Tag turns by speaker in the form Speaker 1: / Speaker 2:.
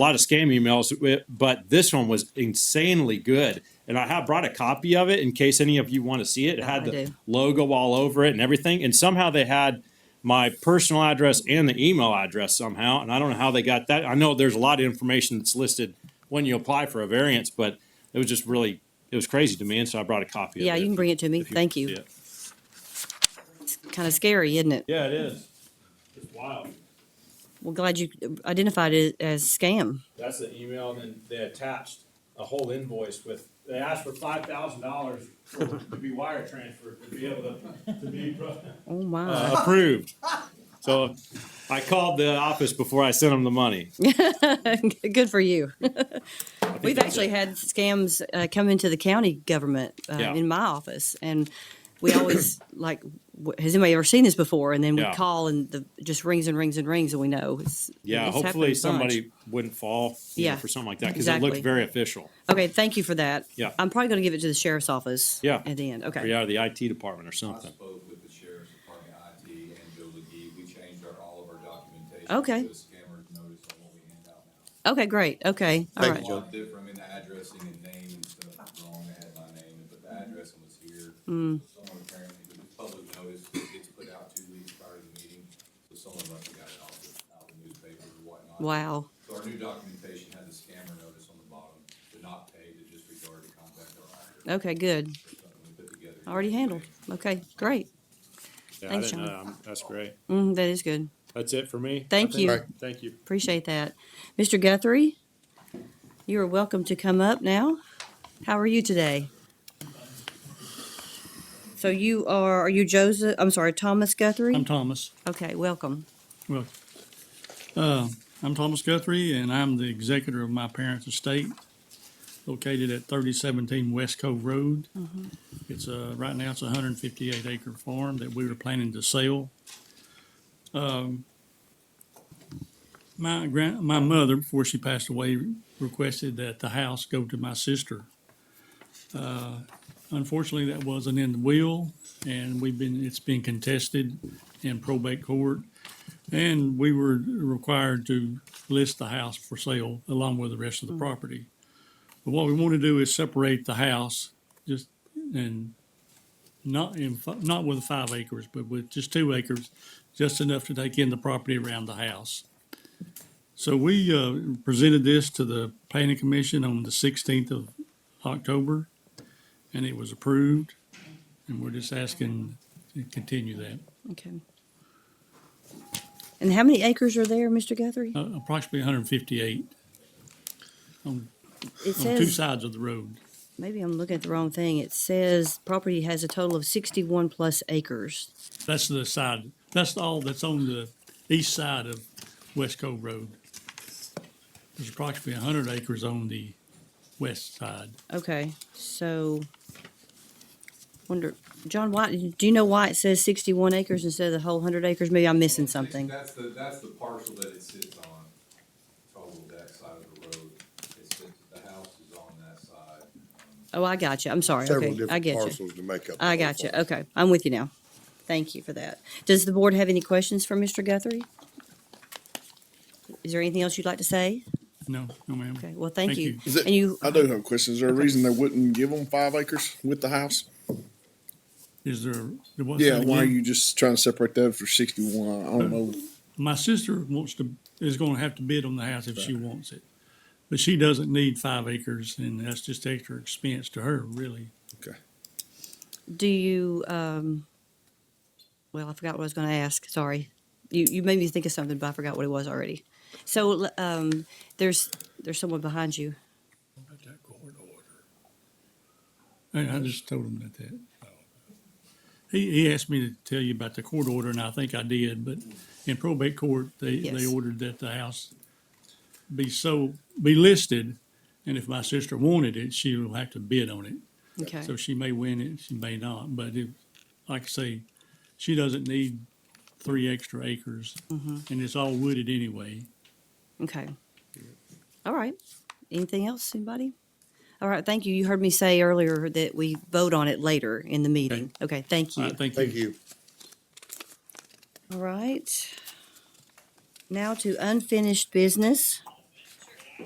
Speaker 1: a lot of scam emails, eh, but this one was insanely good. And I have brought a copy of it in case any of you want to see it. It had
Speaker 2: I
Speaker 1: the
Speaker 2: do.
Speaker 1: logo all over it and everything. And somehow they had my personal address and the email address somehow. And I don't know how they got that. I know there's a lot of information that's listed when you apply for a variance, but it was just really, it was crazy to me. And so I brought a copy of it.
Speaker 2: Yeah, you can bring it to me.
Speaker 1: if want
Speaker 2: Thank
Speaker 1: to see
Speaker 2: you.
Speaker 1: it.
Speaker 2: Kind of scary, isn't it?
Speaker 1: Yeah, it is. It's wild.
Speaker 2: Well, glad you identified it as scam.
Speaker 1: That's the email, and then they attached a whole invoice with, they asked for five thousand dollars to be wire transferred, to be able to, to be
Speaker 2: Oh, my.
Speaker 1: uh, approved. So I called the office before I sent them the money.
Speaker 2: Good for you.
Speaker 1: I think
Speaker 2: We've
Speaker 1: that's
Speaker 2: actually
Speaker 1: it.
Speaker 2: had scams uh, come into the county government uh,
Speaker 1: Yeah.
Speaker 2: in my office, and we always like, "W- has anybody ever seen this before? And then we
Speaker 1: Yeah.
Speaker 2: call, and the just rings and rings and rings, and we know. It's,
Speaker 1: Yeah,
Speaker 2: it's
Speaker 1: hopefully
Speaker 2: happened a bunch.
Speaker 1: somebody wouldn't fall, you know,
Speaker 2: Yeah,
Speaker 1: for something like that, cause it
Speaker 2: exactly.
Speaker 1: looked very official.
Speaker 2: Okay, thank you for that.
Speaker 1: Yeah.
Speaker 2: I'm probably going to give it to the sheriff's office.
Speaker 1: Yeah.
Speaker 2: At the end.
Speaker 1: Or
Speaker 2: Okay.
Speaker 1: yeah, the IT department or
Speaker 3: I
Speaker 1: something.
Speaker 3: spoke with the sheriff's department, IT, and Joe Legee. We changed our, all of our documentation.
Speaker 2: Okay.
Speaker 3: To a scammer's notice on what we hand out now.
Speaker 2: Okay, great. Okay. All
Speaker 4: Thank
Speaker 2: right.
Speaker 4: you,
Speaker 3: A
Speaker 4: Joe.
Speaker 3: lot different, I mean, the addressing and name and stuff was wrong. They had my name, but the address was here. Mm. Someone apparently, but the public notice that gets put out two weeks prior to the meeting, so someone must have got it off the, out of the newspaper or whatnot.
Speaker 2: Wow.
Speaker 3: So our new documentation had the scammer notice on the bottom, to not pay, to disregard, to contact our auditor.
Speaker 2: Okay, good.
Speaker 3: Or something we put together.
Speaker 2: Already handled. Okay, great.
Speaker 1: Yeah, I
Speaker 2: Thanks,
Speaker 1: didn't
Speaker 2: John.
Speaker 1: know. I'm- Um, That's great.
Speaker 2: Mm, that is good.
Speaker 1: That's it for me. I
Speaker 2: Thank
Speaker 1: think.
Speaker 2: you.
Speaker 4: Alright.
Speaker 1: Thank you.
Speaker 2: Appreciate that. Mr. Guthrie, you are welcome to come up now. How are you today? So you are, are you Joseph, I'm sorry, Thomas
Speaker 5: I'm
Speaker 2: Guthrie?
Speaker 5: Thomas.
Speaker 2: Okay, welcome.
Speaker 5: Well, uh, I'm Thomas Guthrie, and I'm the executor of my parents' estate located at 3017 West Cove Road. It's a, right now, it's a 158 acre farm that we were planning to sell. Um, My grand, my mother, before she passed away, requested that the house go to my sister. Uh, Unfortunately, that wasn't in the will, and we've been, it's been contested in probate court. And we were required to list the house for sale along with the rest of the property. But what we want to do is separate the house just and not in, fi- not with five acres, but with just two acres, just enough to take in the property around the house. So we uh, presented this to the planning commission on the sixteenth of October, and it was approved. And we're just asking to continue that.
Speaker 2: Okay. And how many acres are there, Mr. Guthrie?
Speaker 5: Uh, approximately 158 on,
Speaker 2: It
Speaker 5: on two
Speaker 2: says,
Speaker 5: sides of the road.
Speaker 2: maybe I'm looking at the wrong thing. It says property has a total of sixty-one plus acres.
Speaker 5: That's the side, that's all that's on the east side of West Cove Road. There's approximately 100 acres on the west side.
Speaker 2: Okay, so, wonder, John, why, do you know why it says sixty-one acres instead of the whole hundred acres? Maybe I'm missing something.
Speaker 3: That's the, that's the parcel that it sits on, total that side of the road. It sits, the house is on that side.
Speaker 2: Oh, I got you. I'm sorry.
Speaker 4: Several
Speaker 2: Okay, I
Speaker 4: different
Speaker 2: get you.
Speaker 4: parcels to make up. the
Speaker 2: I
Speaker 4: whole
Speaker 2: got you.
Speaker 4: farm.
Speaker 2: Okay, I'm with you now. Thank you for that. Does the board have any questions for Mr. Guthrie? Is there anything else you'd like to say?
Speaker 5: No, no ma'am.
Speaker 2: Okay, well, thank
Speaker 5: Thank
Speaker 2: you.
Speaker 5: you.
Speaker 4: Is it-
Speaker 2: And you,
Speaker 4: I do have a question. Is there a reason they wouldn't give them five acres with the house?
Speaker 5: Is there, there was.
Speaker 4: Yeah, why are you Uh, just trying to separate that for sixty-one? I don't know.
Speaker 5: My sister wants to, is going to have to bid on the house if she wants it. But she doesn't need five acres and that's just extra expense to her, really.
Speaker 4: Okay.
Speaker 2: do you, um, well, I forgot what I was gonna ask, sorry. You, you made me think of something, but I forgot what it was already. So, l- um, there's, there's someone behind you.
Speaker 5: About that court order. I, I just told him about that. He, he asked me to tell you about the court order, and I think I did, but in probate court, they, they
Speaker 2: Yes.
Speaker 5: ordered that the house be so, be listed, and if my sister wanted it, she will have to bid on it.
Speaker 2: Okay,
Speaker 5: So she may win it, she may not, but if, like I say, she doesn't need three extra acres, and
Speaker 2: Mm-hmm.
Speaker 5: it's all wooded anyway.
Speaker 2: okay. All right. Anything else, anybody? All right, thank you. You heard me say earlier that we vote on it later in the meeting. Okay, thank
Speaker 5: All
Speaker 2: you.
Speaker 5: right, thank you.
Speaker 4: Thank you.
Speaker 2: All right. Now to unfinished business.